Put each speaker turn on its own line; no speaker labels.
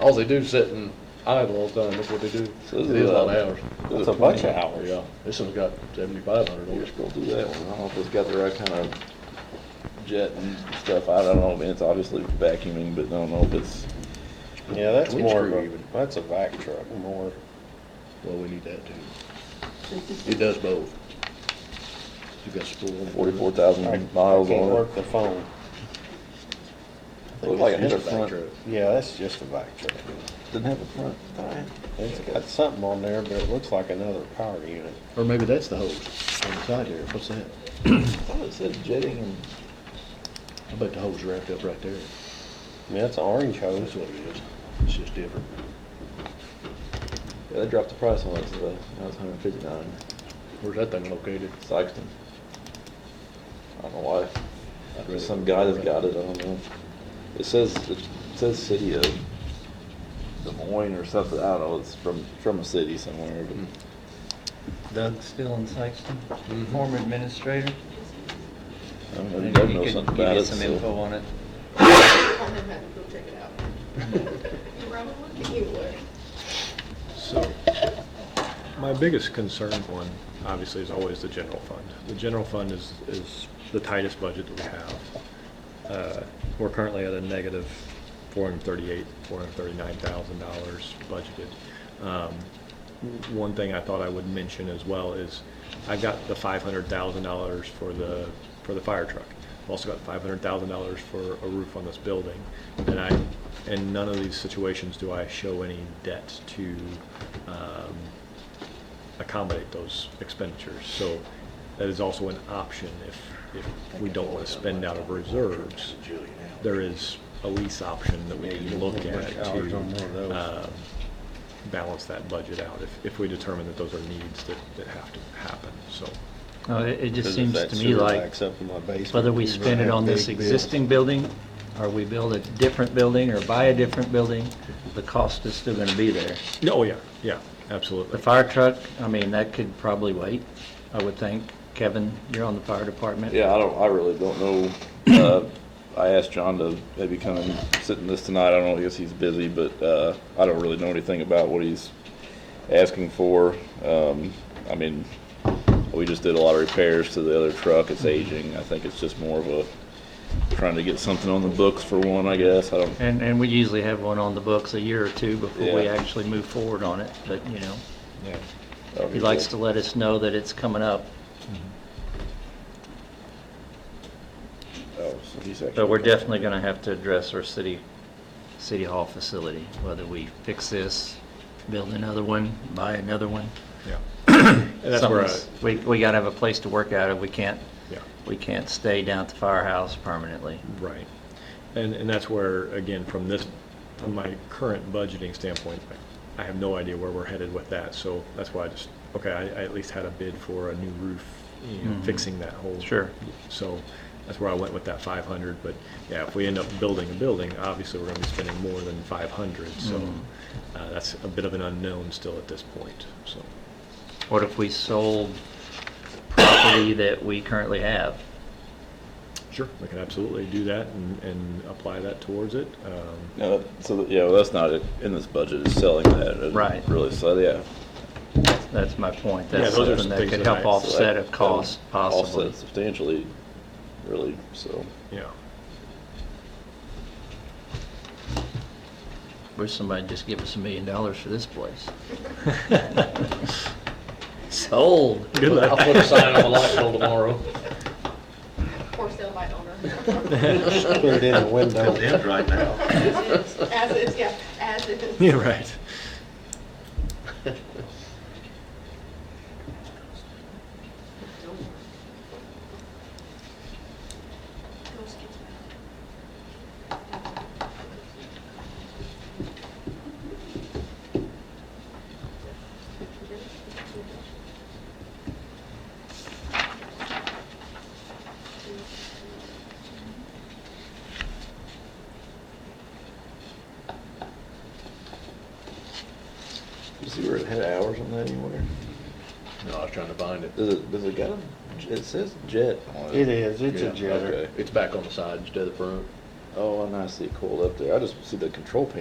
All they do is sit and idle all the time, that's what they do.
So
It
this
is
is
a lot of
a-
hours.
It's a bunch of hours.
Yeah, this one's got seventy-five hundred
We'll
dollars.
just go through that one. I don't know if it's got the right kind of jet and stuff. I don't know. I mean, it's obviously vacuuming, but I don't know if it's,
Yeah, that's
Twin
more of
screw
a,
even.
that's a vac truck, more.
Well, we need that too. It does both. You got spool.
forty-four
I I
thousand
can't
miles on
work the phone.
it. Looked like it had a front,
Yeah, that's just a vac truck.
didn't have a front tire.
It's got something on there, but it looks like another power unit.
Or maybe that's the hose on the side here, what's that?
I thought it said jetting and,
I bet the hose wrapped up right there.
I mean, that's an orange
That's
hose.
what it is, it's just different.
yeah, they dropped the price on it, so that was hundred and fifty-nine.
Where's that thing located?
Sykeston. I don't know why.
I'd rather
There's some guy that's got it, I
go
don't know. It says, it says city of Des Moines or something, I don't know, it's from, from a city somewhere, but.
Doug's still in Sykeston,
Mhm.
former administrator.
I don't know,
Maybe
he
he
does know
could
something
give
about
you
it,
some
so-
info on it.
I'll never have to go check it out. You probably you would.
So, my biggest concern, one, obviously, is always the general fund. The general fund is, is the tightest budget that we have. Uh, We're currently at a negative $438,000, $439,000 budgeted. Um, w- One thing I thought I would mention as well is, I got the $500,000 for the, for the fire truck. I've also got $500,000 for a roof on this building. And I, in none of these situations do I show any debt to um, accommodate those expenditures. So that is also an option if, if we don't want to spend out of reserves. There is a lease option that we can look at
Hours on one of
to
those.
um, balance that budget out if, if we determine that those are needs that, that have to happen, so.
No, it, it just
Because if
seems
that
to me
sewer
like
backs up in my basement,
whether we
you're gonna
spend it
have
on this
big bills.
existing building or we build a different building or buy a different building, the cost is still gonna be there.
Oh, yeah, yeah,
The
absolutely.
fire truck, I mean, that could probably wait, I would think. Kevin, you're on the fire department.
Yeah, I don't, I really don't know. Uh, I asked John to maybe come and sit in this tonight. I don't know, I guess he's busy, but, uh, I don't really know anything about what he's asking for. Um, I mean, we just did a lot of repairs to the other truck. It's aging. I think it's just more of a, trying to get something on the books for one, I guess. I don't,
And, and we usually have one on the books a year or two before we
Yeah.
actually move forward on it, but, you know,
Yeah.
he likes to let us know that it's coming up.
Oh, so he's actually-
But we're definitely gonna have to address our city, city hall facility, whether we fix this, build another one, buy another one.
Yeah. And that's where, I-
Something's- We, we gotta have a place to work out of. We can't,
yeah,
we can't stay down at the firehouse permanently.
right. And, and that's where, again, from this, from my current budgeting standpoint, I have no idea where we're headed with that, so that's why I just, okay, I, I at least had a bid for a new roof, you know,
Mhm.
fixing that whole.
Sure.
So that's where I went with that five hundred, but yeah, if we end up building a building, obviously we're gonna be spending more than five hundred, so
Mhm.
uh, that's a bit of an unknown still at this point, so.
What if we sold property that we currently have?
Sure. We can absolutely do that and, and apply that towards it. Um,
Yeah, that- so, that- yeah, well, that's not it in this budget, it's selling that. It
Right.
Really, so, yeah.
That's my point.
Yeah,
That's
those are
something that
things
could
that I-
help
so that-
So that-
offset a
that would
cost possibly.
Offset substantially, really, so.
Yeah.
Wish somebody'd just give us a million dollars for this place. Sold.
Good
I'll
luck.
put a sign on the light pole tomorrow.
For sale by owner.
Put it in the window.
right now.
As is, As is, yeah, as is.
Yeah, right.
You see where it had hours on that anywhere?
No, I was trying to find it.
Does it, does it got a, it says jet on it.
It is, it's a
Yeah,
jetter.
okay.
It's back on the side instead of the front.
Oh, and I see it coiled up there. I just see the control panel